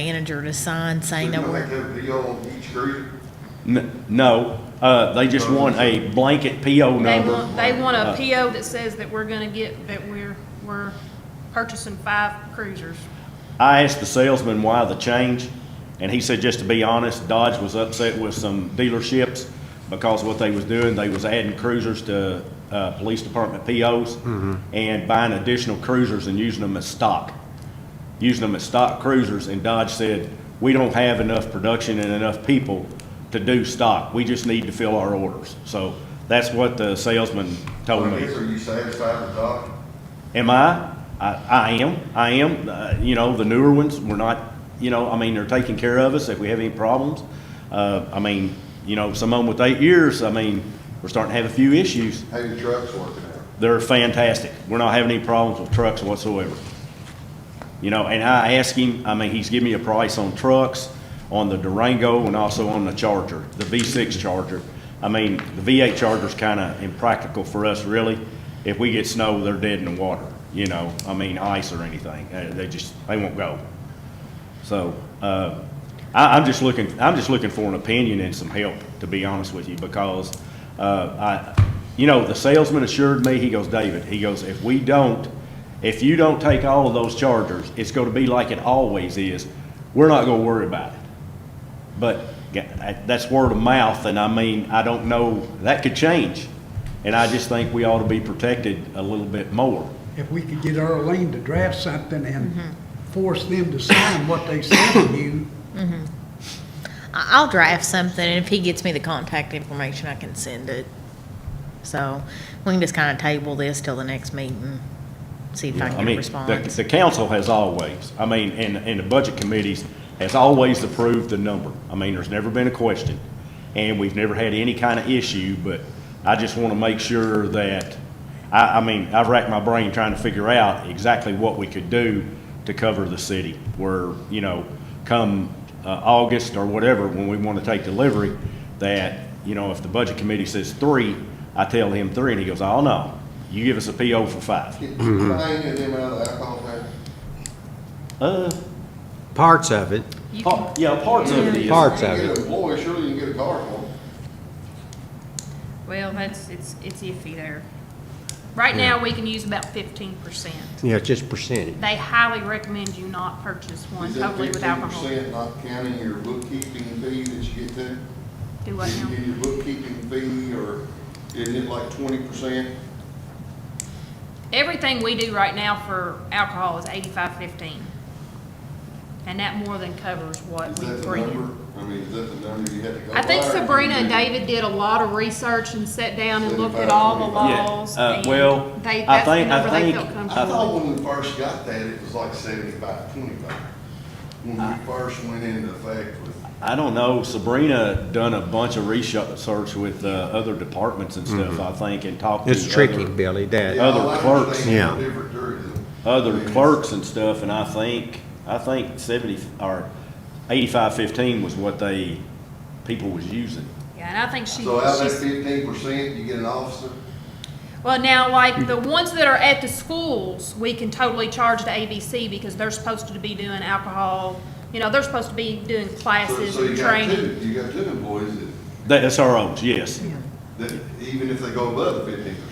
manager to sign saying that Didn't we're, they do the old each group? N- No, uh, they just want a blanket PO They number. want, they want a PO that says that we're gonna get, that we're, we're purchasing five cruisers. I asked the salesman why the change, and he said, just to be honest, Dodge was upset with some dealerships because what they was doing, they was adding cruisers to, uh, police department POs and buying additional cruisers and using them as stock, using them as stock cruisers, and Dodge said, we don't have enough production and enough people to do stock. We just need to fill our orders. So that's what the salesman Oh, told me. Are you satisfied with Doc? Am I? I, I am. I am. Uh, you know, the newer ones, we're not, you know, I mean, they're taking care of us if we have any problems. Uh, I mean, you know, someone with eight years, I mean, we're starting to have a few issues. How your trucks working out? They're fantastic. We're not having any problems with trucks whatsoever. You know, and I asked him, I mean, he's giving me a price on trucks, on the Durango and also on the Charger, the V6 Charger. I mean, the V8 Charger's kind of impractical for us, really. If we get snow, they're dead in the water, you know, I mean, ice or anything. Uh, They just, they won't go. So, uh, I, I'm just looking, I'm just looking for an opinion and some help, to be honest with you, because, uh, I, you know, the salesman assured me, he goes, David, he goes, if we don't, if you don't take all of those chargers, it's gonna be like it always is. We're not gonna worry about it. But ga- I- that's word of mouth, and I mean, I don't know, that could change. And I just think we ought to be protected a little bit more. if we could get Earlene to draft something and force them to sign what they sent to you, I- I'll draft something, and if he gets me the contact information, I can send it. So we can just kind of table this till the next meeting, see if I I can get a mean, response. The, the council has always, I mean, and, and the budget committees has always approved the number. I mean, there's never been a question, and we've never had any kind of issue, but I just want to make sure that, I, I mean, I've racked my brain trying to figure out exactly what we could do to cover the city, where, you know, come, uh, August or whatever, when we want to take delivery, that, you know, if the budget committee says three, I tell him three, and he goes, oh, no, you give us a PO for five. Get Mm-hmm. Ryan and them out of the alcohol there. Uh, Parts of it, You can- Par- Yeah, parts of it is. Parts You of can it. get a boy, surely you can get a car for him. Well, that's, it's, it's iffy there. Right now, we can use about fifteen percent. you know, just percentage. They highly recommend you not purchase one Is that totally with alcohol. 15% Not counting your bookkeeping fee that you get to? Do what Did you now? get your bookkeeping fee or isn't it like twenty percent? Everything we do right now for alcohol is eighty-five fifteen. And that more than covers what Is we that the bring in. number? I mean, is that the number you had to go by? I think or can Sabrina you and do- David did a lot of research and sat down and looked at Seventy-five, all the seventy-five. laws. Yeah, uh, and well, I they- that's the think- I number they think- felt I comfortable thought when we first got that, it was like seventy-five, twenty-five. When Uh. we first went into effect with. I don't know, Sabrina done a bunch of research with uh, other departments and stuff, I think, and talked to Mm-hmm. It's tricky, other, Billy, that, Yeah, other I like clerks. understanding Yeah. the different jurisdictions. other clerks and stuff, and I think, I think seventy, or eighty-five fifteen was what they, people was using. Yeah, and I think she, So out of that she's, fifteen percent, you get an officer? well, now, like, the ones that are at the schools, we can totally charge the ABC because they're supposed to be doing alcohol, you know, they're supposed to be doing So classes so you and got training. two. You got two employees that, That- That's our own, yes. that, even if they go above the fifteen percent.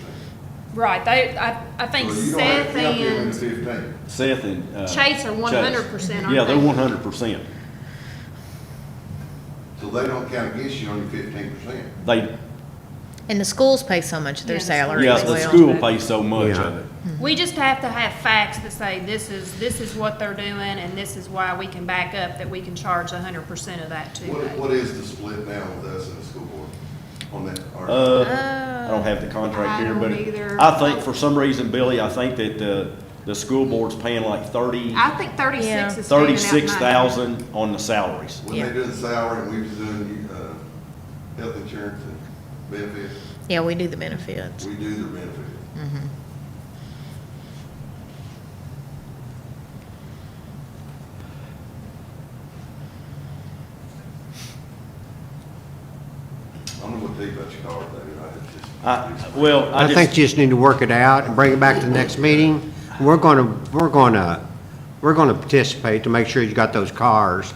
Right, they, I, I think Seth and Fifteen. Seth and. uh, Chase are one hundred percent, Yeah, aren't they're one they? hundred percent. So they don't count against you on your fifteen percent. They, And the schools pay so much of their Yeah, the schools salary yeah, as the well. school pays so much Yeah. of it. We just have to have facts that say this is, this is what they're doing and this is why we can back up that we can charge hundred percent of that too. What, what is the split now with us and the school board on that? or- Uh, I don't have the contract Oh, I here, but don't either. I think for some reason, Billy, I think that the, the school board's paying like thirty, I think thirty-six Yeah. is standing out. thirty-six mine. thousand on the salaries. When they do the salary and we was doing, uh, health insurance and benefits, Yeah, we do the benefits. we do the benefits. I don't know what they about your car, David, I I, just. well, I I think just, you just need to work it out and bring it back to the next meeting. We're gonna, we're gonna we're going to participate to make sure you got those cars